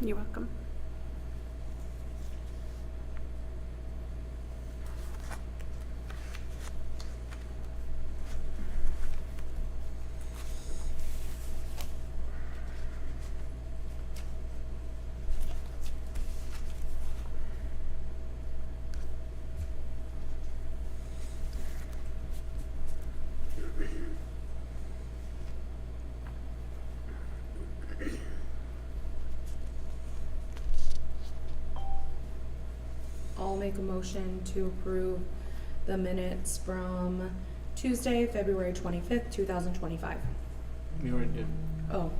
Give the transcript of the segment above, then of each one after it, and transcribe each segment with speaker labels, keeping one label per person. Speaker 1: You're welcome.
Speaker 2: I'll make a motion to approve the minutes from Tuesday, February twenty-fifth, two thousand twenty-five.
Speaker 3: We already did,
Speaker 2: Oh,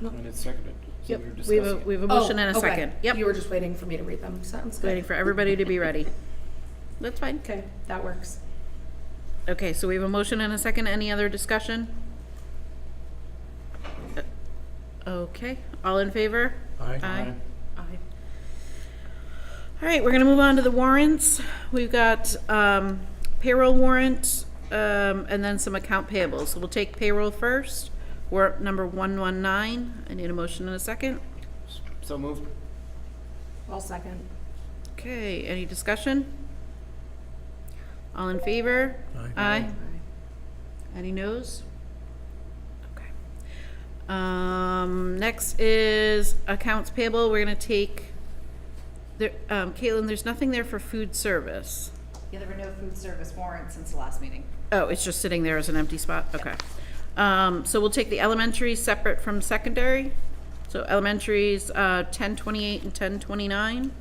Speaker 3: and it's seconded, so
Speaker 2: Yep.
Speaker 3: we were
Speaker 4: We
Speaker 3: discussing.
Speaker 4: have, a we have a
Speaker 2: Oh,
Speaker 4: motion and a
Speaker 2: okay.
Speaker 4: second. Yep,
Speaker 2: You were just waiting for me to read them. Sounds
Speaker 4: waiting
Speaker 2: good.
Speaker 4: for everybody to be ready. That's fine.
Speaker 2: Okay, that works.
Speaker 4: Okay, so we have a motion and a second. Any other discussion? Uh, Okay, all in favor?
Speaker 5: Aye.
Speaker 4: Aye.
Speaker 3: Aye.
Speaker 4: Aye. All right, we're gonna move on to the warrants. We've got um, payroll warrant, um, and then some account payables. So we'll take payroll first. Warrant number one one nine. I need a motion and a second.
Speaker 3: So moved.
Speaker 2: I'll second.
Speaker 4: Okay, any discussion? All in favor?
Speaker 5: Aye.
Speaker 4: Aye. Any noes? Okay. Um, next is accounts payable. We're gonna take, there, um, Caitlin, there's nothing there for food service.
Speaker 6: Yeah, there were no food service warrants since the last meeting.
Speaker 4: Oh, it's just sitting there as an empty spot? Okay. Um, so we'll take the elementary separate from secondary. So elementary's, uh, ten twenty-eight and ten twenty-nine.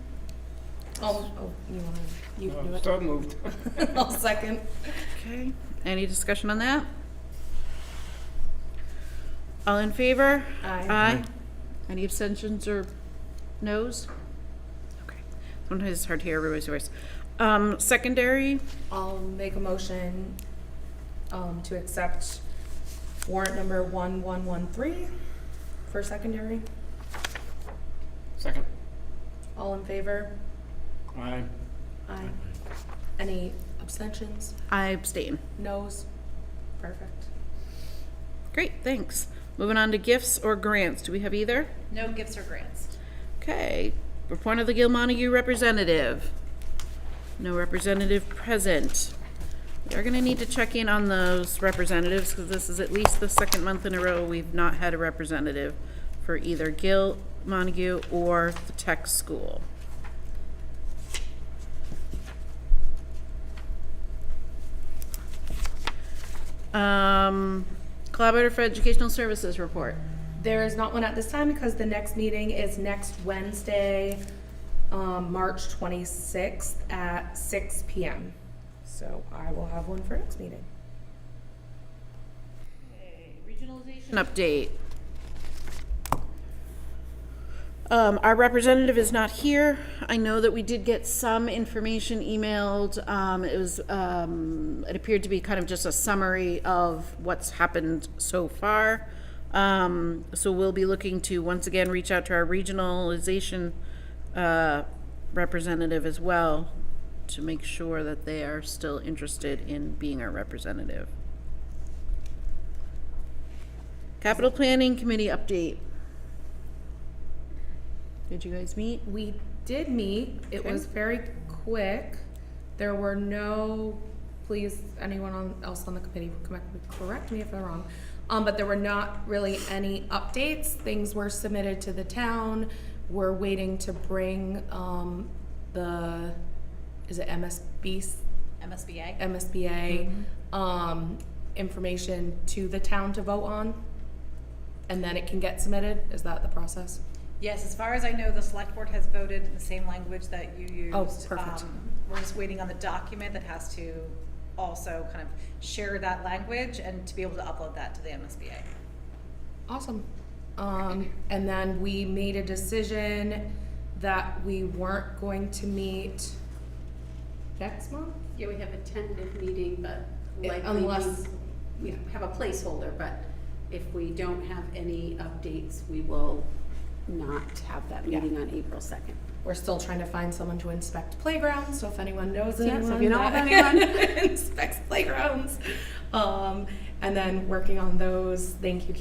Speaker 2: Oh, oh, you wanna, you can do it.
Speaker 3: So moved.
Speaker 2: I'll second.
Speaker 4: Okay, any discussion on that? All in favor?
Speaker 2: Aye.
Speaker 4: Aye. Any abstentions or noes? Okay, sometimes it's hard to hear everybody's voice. Um, secondary,
Speaker 2: I'll make a motion, um, to accept warrant number one one one three for secondary.
Speaker 3: Second.
Speaker 2: All in favor?
Speaker 3: Aye.
Speaker 2: Aye. Any abstentions?
Speaker 4: I abstain.
Speaker 2: Noes? Perfect.
Speaker 4: Great, thanks. Moving on to gifts or grants, do we have either?
Speaker 6: No gifts or grants.
Speaker 4: Okay, report of the Gil Montague representative. No representative present. We are gonna need to check in on those representatives, because this is at least the second month in a row we've not had a representative for either Gil Montague or the tech school. Um, Collaborative for Educational Services report.
Speaker 2: There is not one at this time because the next meeting is next Wednesday, um, March twenty-sixth at six P M. So I will have one for next meeting.
Speaker 4: Regionalization update. Um, our representative is not here. I know that we did get some information emailed. Um, it was, um, it appeared to be kind of just a summary of what's happened so far. Um, so we'll be looking to once again reach out to our regionalization uh, representative as well to make sure that they are still interested in being our representative. Capital Planning Committee update. Did you guys meet?
Speaker 2: We did meet. It was very quick. There were no, please, anyone on, else on the committee, correct, correct me if I'm wrong. Um, but there were not really any updates. Things were submitted to the town. We're waiting to bring, um, the, is it MSB
Speaker 6: MSBA?
Speaker 2: MSBA um, information to the town to vote on, and then it can get submitted. Is that the process?
Speaker 6: Yes, as far as I know, the select board has voted in the same language that you used.
Speaker 2: Oh, perfect.
Speaker 6: Um, We're just waiting on the document that has to also kind of share that language and to be able to upload that to the MSBA.
Speaker 2: Awesome. Um, and then we made a decision that we weren't going to meet next month.
Speaker 1: Yeah, we have a tentative meeting, but
Speaker 2: Yeah,
Speaker 1: likely.
Speaker 2: unless-
Speaker 1: We we have a placeholder, but if we don't have any updates, we will not have that
Speaker 2: Yeah.
Speaker 1: meeting on April second.
Speaker 2: We're still trying to find someone to inspect playgrounds, so if anyone knows
Speaker 1: Yeah,
Speaker 2: anyone,
Speaker 1: so if you know of
Speaker 2: that
Speaker 1: anyone.
Speaker 2: inspects playgrounds, um, and then working on those. Thank you,